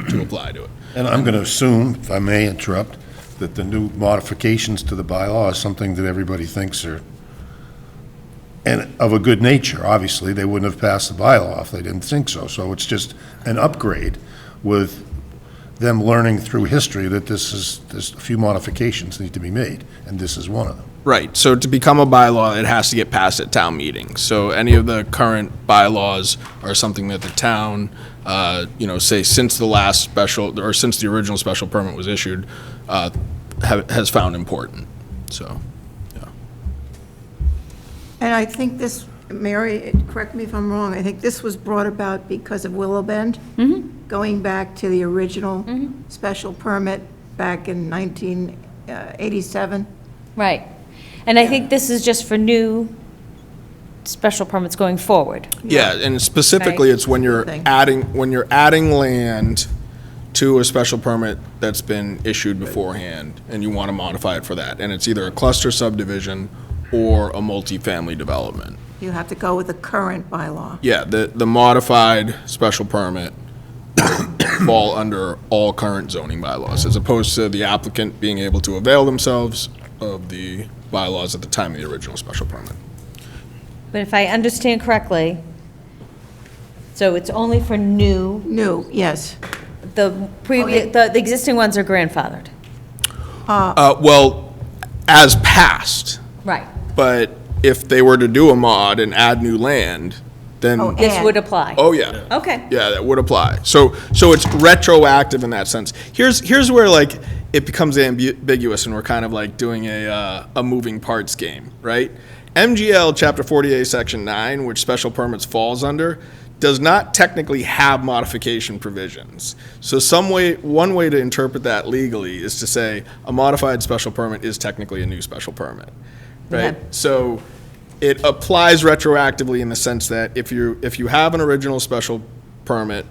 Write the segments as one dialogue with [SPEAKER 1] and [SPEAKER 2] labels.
[SPEAKER 1] to apply to it.
[SPEAKER 2] And I'm going to assume, if I may interrupt, that the new modifications to the bylaw is something that everybody thinks are, and of a good nature, obviously, they wouldn't have passed the bylaw if they didn't think so. So it's just an upgrade with them learning through history that this is, there's a few modifications need to be made, and this is one of them.
[SPEAKER 1] Right, so to become a bylaw, it has to get passed at town meeting. So any of the current bylaws are something that the town, uh, you know, say since the last special, or since the original special permit was issued, uh, ha- has found important, so.
[SPEAKER 3] And I think this, Mary, correct me if I'm wrong, I think this was brought about because of Willow Bend? Going back to the original special permit back in uh, 1987?
[SPEAKER 4] Right. And I think this is just for new special permits going forward.
[SPEAKER 1] Yeah, and specifically,
[SPEAKER 4] Right.
[SPEAKER 1] it's when you're
[SPEAKER 3] Thing.
[SPEAKER 1] adding, when you're adding land to a special permit that's been issued beforehand, and you want to modify it for that. And it's either a cluster subdivision or a multifamily development.
[SPEAKER 3] You have to go with the current bylaw.
[SPEAKER 1] Yeah, the, the modified special permit fall under all current zoning bylaws, as opposed to the applicant being able to avail themselves of the bylaws at the time of the original special permit.
[SPEAKER 4] But if I understand correctly, so it's only for new,
[SPEAKER 3] New, yes.
[SPEAKER 4] the previous, the the existing ones are grandfathered.
[SPEAKER 1] Uh, well, as passed,
[SPEAKER 4] Right.
[SPEAKER 1] but if they were to do a mod and add new land, then,
[SPEAKER 3] Oh,
[SPEAKER 4] This would apply.
[SPEAKER 1] oh, yeah.
[SPEAKER 4] Okay.
[SPEAKER 1] Yeah, that would apply. So, so it's retroactive in that sense. Here's, here's where like it becomes ambu- ambiguous and we're kind of like doing a, uh, a moving parts game, right? MGL Chapter 48, Section 9, which special permits falls under, does not technically have modification provisions. So some way, one way to interpret that legally is to say a modified special permit is technically a new special permit, right?
[SPEAKER 4] Okay.
[SPEAKER 1] So it applies retroactively in the sense that if you, if you have an original special permit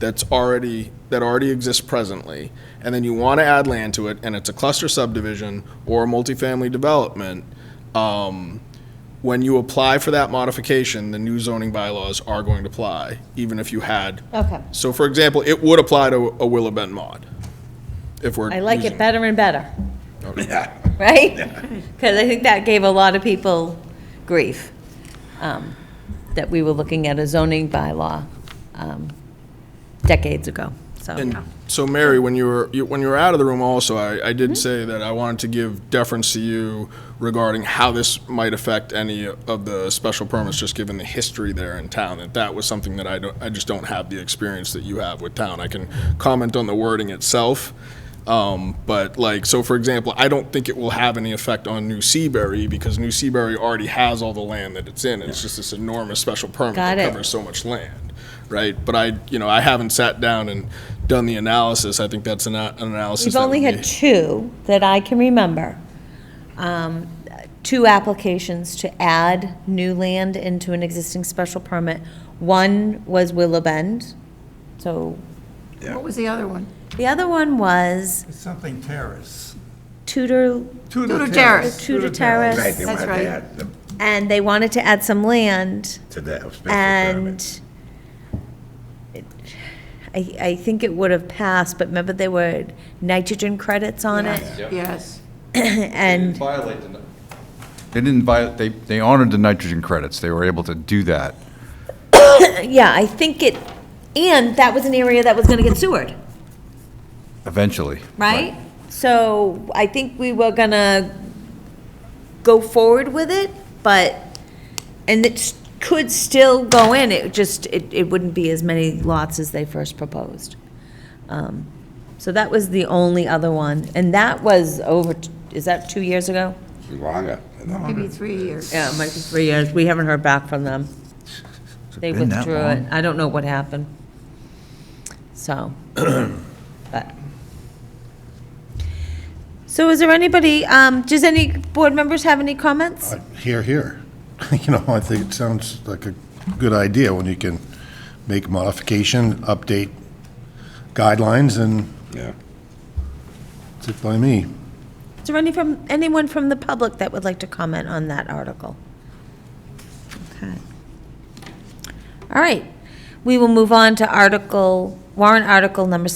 [SPEAKER 1] that's already, that already exists presently, and then you want to add land to it, and it's a cluster subdivision or a multifamily development, um, when you apply for that modification, the new zoning bylaws are going to apply, even if you had.
[SPEAKER 4] Okay.
[SPEAKER 1] So for example, it would apply to a Willow Bend mod, if we're.
[SPEAKER 4] I like it
[SPEAKER 1] using-
[SPEAKER 4] better and better,
[SPEAKER 1] Okay.
[SPEAKER 4] right? Because I think that gave a lot of people grief, um, that we were looking at a zoning bylaw um, decades ago, so.
[SPEAKER 1] And so, Mary, when you were, you- when you were out of the room also, I, I
[SPEAKER 4] Hmm?
[SPEAKER 1] did say that I wanted to give deference to you regarding how this might affect any of the special permits, just given the history there in town, that that was something that I don't, I just don't have the experience that you have with town. I can comment on the wording itself, um, but like, so for example, I don't think it will have any effect on New Seabury, because New Seabury already has all the land that it's in, it's just this enormous special permit that
[SPEAKER 4] Got it.
[SPEAKER 1] covers so much land, right? But I, you know, I haven't sat down and done the analysis. I think that's an, a- an analysis.
[SPEAKER 4] We've
[SPEAKER 1] that
[SPEAKER 4] only
[SPEAKER 1] would
[SPEAKER 4] had
[SPEAKER 1] be-
[SPEAKER 4] two that I can remember. Um, Two applications to add new land into an existing special permit. One was Willow Bend, so,
[SPEAKER 3] What was the other one?
[SPEAKER 4] the other one was
[SPEAKER 5] It's something terrace.
[SPEAKER 4] Tudor,
[SPEAKER 3] Tudor
[SPEAKER 4] the
[SPEAKER 3] terrace.
[SPEAKER 4] Tudor Terrace,
[SPEAKER 6] Right, they
[SPEAKER 3] That's
[SPEAKER 6] wanted
[SPEAKER 3] right.
[SPEAKER 6] to add them
[SPEAKER 4] and they wanted to add some land,
[SPEAKER 6] to that special permit.
[SPEAKER 4] and it- I, I think it would have passed, but remember there were nitrogen credits on it?
[SPEAKER 3] Yes.
[SPEAKER 4] And
[SPEAKER 7] violate the. They didn't violate, they, they honored the nitrogen credits. They were able to do that.
[SPEAKER 4] Yeah, I think it, and that was an area that was gonna get sewered,
[SPEAKER 7] Eventually.
[SPEAKER 4] right? So I think we were gonna go forward with it, but, and it s- could still go in, it just, it, it wouldn't be as many lots as they first proposed. Um, So that was the only other one, and that was over, t- is that two years ago?
[SPEAKER 6] Longer.
[SPEAKER 3] Maybe three years.
[SPEAKER 4] Yeah, it might be three years, we haven't heard back from them. They
[SPEAKER 7] been that
[SPEAKER 4] withdrew it,
[SPEAKER 7] long?
[SPEAKER 4] I don't know what happened. So, but. So is there anybody, um, does any board members have any comments?
[SPEAKER 2] Uh, Here, here. You know, I think it sounds like a good idea when you can make modification, update guidelines, and
[SPEAKER 6] Yeah.
[SPEAKER 2] it's by me.
[SPEAKER 4] Is there any from, anyone from the public that would like to comment on that article? Okay. All right, we will move on to article, warrant article number